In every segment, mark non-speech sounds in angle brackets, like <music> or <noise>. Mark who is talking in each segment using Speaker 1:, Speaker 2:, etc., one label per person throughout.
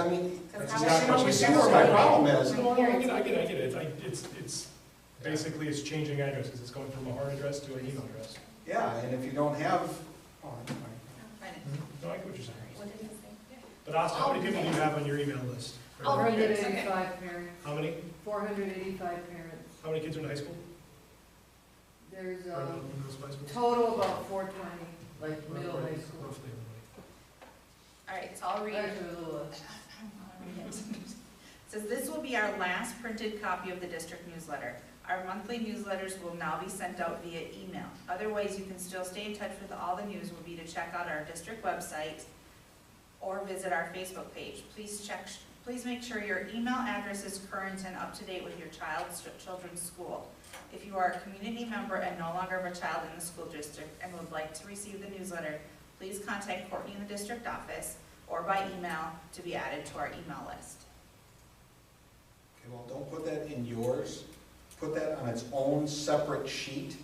Speaker 1: I mean,
Speaker 2: Because
Speaker 1: that's
Speaker 2: how
Speaker 1: just
Speaker 2: much
Speaker 1: not what
Speaker 2: money
Speaker 1: you
Speaker 2: is
Speaker 1: see
Speaker 2: that?
Speaker 1: where my problem is.
Speaker 3: No, no, I get it, I get it, I get it. It's, I- it's, it's, basically it's changing addresses. It's going from a hard address to an email address.
Speaker 1: Yeah, and if you don't have, oh, never mind.
Speaker 2: Find it.
Speaker 3: No, I get what you're saying.
Speaker 2: What did it say?
Speaker 3: But Austin, how many people do you have on your email list?
Speaker 2: Oh,
Speaker 4: Four
Speaker 2: right.
Speaker 4: hundred
Speaker 2: okay.
Speaker 4: eighty-five parents,
Speaker 3: How many,
Speaker 4: four hundred eighty-five parents.
Speaker 3: how many kids are in high school?
Speaker 4: There's
Speaker 3: Or
Speaker 4: a
Speaker 3: in those high schools?
Speaker 4: total about four twenty, like middle
Speaker 3: Roughly
Speaker 4: high school.
Speaker 3: everybody.
Speaker 2: All right, so I'll read it.
Speaker 4: Actually, a little less.
Speaker 2: Says this will be our last printed copy of the district newsletter. Our monthly newsletters will now be sent out via email. Other ways you can still stay in touch with all the news will be to check out our district website or visit our Facebook page. Please check, please make sure your email address is current and up to date with your child's, children's school. If you are a community member and no longer have a child in the school district and would like to receive the newsletter, please contact Courtney in the district office or by email to be added to our email list.
Speaker 1: Okay, well, don't put that in yours, put that on its own separate sheet,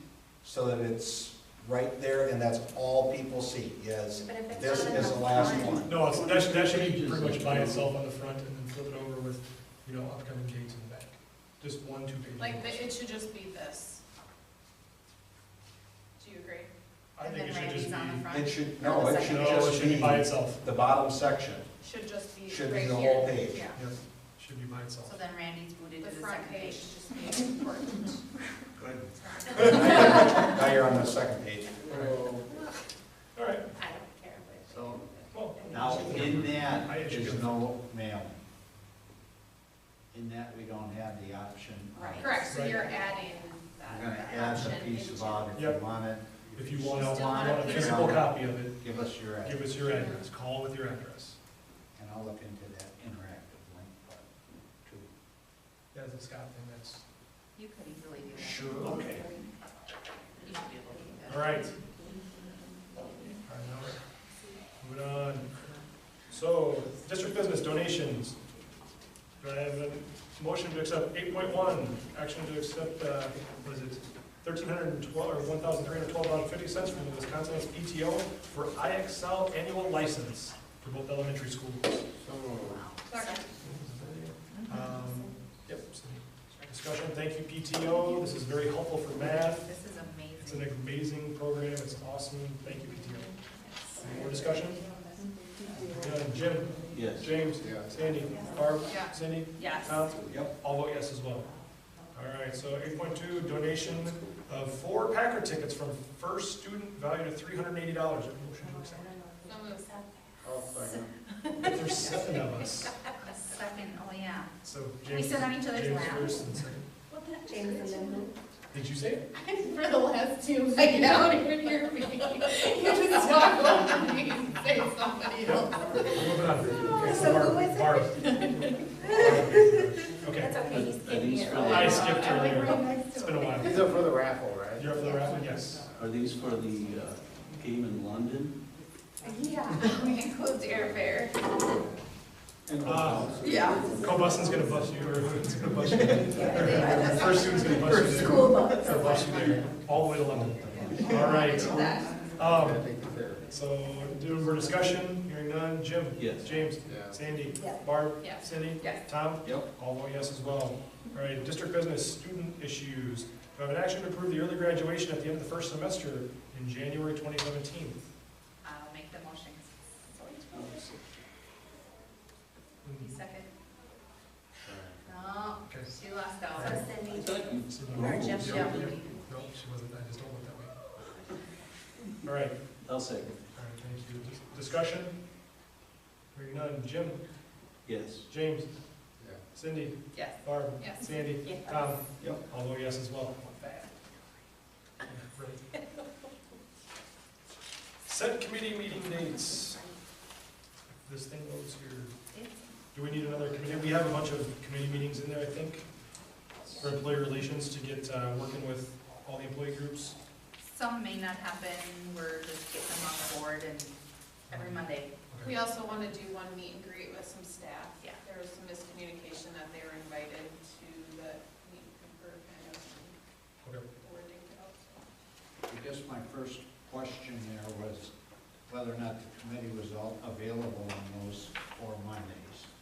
Speaker 1: so that it's right there, and that's all people see, is,
Speaker 2: But if it's
Speaker 1: this
Speaker 2: not in
Speaker 1: is the
Speaker 2: the
Speaker 1: last
Speaker 2: front-
Speaker 1: one.
Speaker 3: No, it's- that should, that should be pretty much by itself on the front and then flip it over with, you know, upcoming dates in the back. Just one, two pages.
Speaker 5: Like, the- it should just be this. Do you agree?
Speaker 3: I think it should
Speaker 2: And
Speaker 3: just
Speaker 2: then Randy's on the
Speaker 3: be,
Speaker 1: It
Speaker 2: front.
Speaker 1: should, no, it should
Speaker 3: no, it
Speaker 1: just
Speaker 3: should
Speaker 1: be
Speaker 3: be by itself.
Speaker 1: the bottom section.
Speaker 5: Should just be
Speaker 1: Should be
Speaker 5: right
Speaker 1: the
Speaker 5: here.
Speaker 1: whole page.
Speaker 5: Yeah.
Speaker 3: Yes, should be by itself.
Speaker 2: So then Randy's booted
Speaker 5: The
Speaker 2: to the
Speaker 5: front
Speaker 2: second
Speaker 5: page
Speaker 2: page.
Speaker 5: should just be important.
Speaker 1: Good. <laughs> Now you're on the second page.
Speaker 3: All right,
Speaker 2: I don't care, but.
Speaker 6: So
Speaker 3: well.
Speaker 6: now in
Speaker 3: I
Speaker 6: that
Speaker 3: actually
Speaker 6: is
Speaker 3: don't-
Speaker 6: no mailing. In that we don't have the option. of-
Speaker 2: Right.
Speaker 5: Correct, so
Speaker 3: Right.
Speaker 5: you're adding that.
Speaker 6: We're gonna
Speaker 5: that
Speaker 6: add the
Speaker 5: option
Speaker 6: piece
Speaker 5: into-
Speaker 6: about if you
Speaker 3: Yep.
Speaker 6: want it.
Speaker 3: If you want,
Speaker 5: Still want
Speaker 3: a
Speaker 5: it.
Speaker 3: physical copy of it,
Speaker 6: Give us your
Speaker 3: give
Speaker 6: address,
Speaker 3: us your address, call with your address.
Speaker 6: and I'll look into that interactive link part too.
Speaker 3: That's a Scott thing, that's,
Speaker 2: You could easily do that.
Speaker 3: Sure, okay.
Speaker 2: You should be able to do that.
Speaker 3: all right. All right, now we're- Moving on. So, district business donations. Do I have a motion to accept eight point one, action to accept, uh, what is it? Thirteen hundred and twelve, or one thousand three hundred twelve dollars fifty cents from the Wisconsin PTO for IXL annual license for both elementary schools.
Speaker 5: Second.
Speaker 3: Um, Yep, so discussion, thank you PTO, this is very helpful for math,
Speaker 2: This is
Speaker 3: it's an
Speaker 2: amazing.
Speaker 3: amazing program, it's awesome, thank you PTO. Any more discussion? Done. Jim?
Speaker 6: Yes.
Speaker 3: James? Sandy? Barb?
Speaker 5: Yeah.
Speaker 3: Cindy?
Speaker 2: Yes.
Speaker 3: Tom?
Speaker 1: Yep.
Speaker 3: I'll vote yes as well. All right, so eight point two, donation of four Packer tickets from first student valued at three hundred and eighty dollars. Motion to accept.
Speaker 5: So moved.
Speaker 2: <laughs>
Speaker 3: But There's seven of us,
Speaker 2: A Second, oh, yeah.
Speaker 3: <laughs> so
Speaker 2: We
Speaker 3: James.
Speaker 2: sit on each other's
Speaker 3: James
Speaker 2: laps.
Speaker 3: first and second.
Speaker 7: James and then
Speaker 3: Did you say it?
Speaker 5: <laughs>
Speaker 7: For the last two, like, you don't even hear me. You just talk over me and say somebody else.
Speaker 3: Moving on. Okay,
Speaker 2: So who
Speaker 3: Barb-
Speaker 2: is it?
Speaker 3: Barb. Okay,
Speaker 2: That's okay, he's
Speaker 6: Are
Speaker 2: kidding
Speaker 6: these
Speaker 2: you.
Speaker 6: for
Speaker 3: I
Speaker 6: the,
Speaker 3: skipped her there.
Speaker 7: next
Speaker 3: It's been a while.
Speaker 8: These are for the raffle, right?
Speaker 3: You're up for the round, yes.
Speaker 6: are these for the uh, game in London?
Speaker 2: Yeah, we include airfare.
Speaker 3: Uh,
Speaker 2: Yeah.
Speaker 3: Cobuston's gonna bust you, or who's gonna bust you? Or First student's gonna bust you there.
Speaker 2: bus.
Speaker 3: Or bust you there, all the way to London. All right.
Speaker 8: I
Speaker 3: Um,
Speaker 8: think they're.
Speaker 3: so, do more discussion, hearing none. Jim?
Speaker 6: Yes.
Speaker 3: James?
Speaker 8: Yeah.
Speaker 3: Sandy?
Speaker 2: Yeah.
Speaker 3: Barb?
Speaker 5: Yes.
Speaker 3: Cindy?
Speaker 2: Yes.
Speaker 3: Tom?
Speaker 6: Yep.
Speaker 3: All vote yes as well. All right, district business, student issues. Do I have an action to approve the early graduation at the end of the first semester in January twenty seventeen?
Speaker 2: I'll make the motion. You second? No,
Speaker 3: Okay.
Speaker 2: she lost out.
Speaker 3: So
Speaker 6: I thought you-
Speaker 2: Or Jeff
Speaker 3: Yeah.
Speaker 2: Sheldon.
Speaker 3: No, she wasn't, I just don't look that way. All right,
Speaker 6: I'll second,
Speaker 3: all right, thank you. Dis- Discussion? Hearing none. Jim?
Speaker 6: yes.
Speaker 3: James?
Speaker 8: Yeah.
Speaker 3: Cindy?
Speaker 2: Yes.
Speaker 3: Barb?
Speaker 5: Yes.
Speaker 3: Sandy?
Speaker 2: Yes.
Speaker 3: Tom?
Speaker 1: Yep.
Speaker 3: I'll vote Um, yes as well. Right. Set committee meeting dates. This thing goes here. Do we need another committee? We have a bunch of committee meetings in there, I think, for employee relations to get, uh, working with all the employee groups.
Speaker 2: Some may not happen, we're just getting them on board and every Monday.
Speaker 3: Okay.
Speaker 5: We also want to do one meet and greet with some staff.
Speaker 2: Yeah.
Speaker 5: There was some miscommunication that they were invited to the meet and greet, kind of
Speaker 3: Okay.
Speaker 5: wording it out, so.
Speaker 6: I guess my first question there was whether or not the committee was all available on those four Mondays.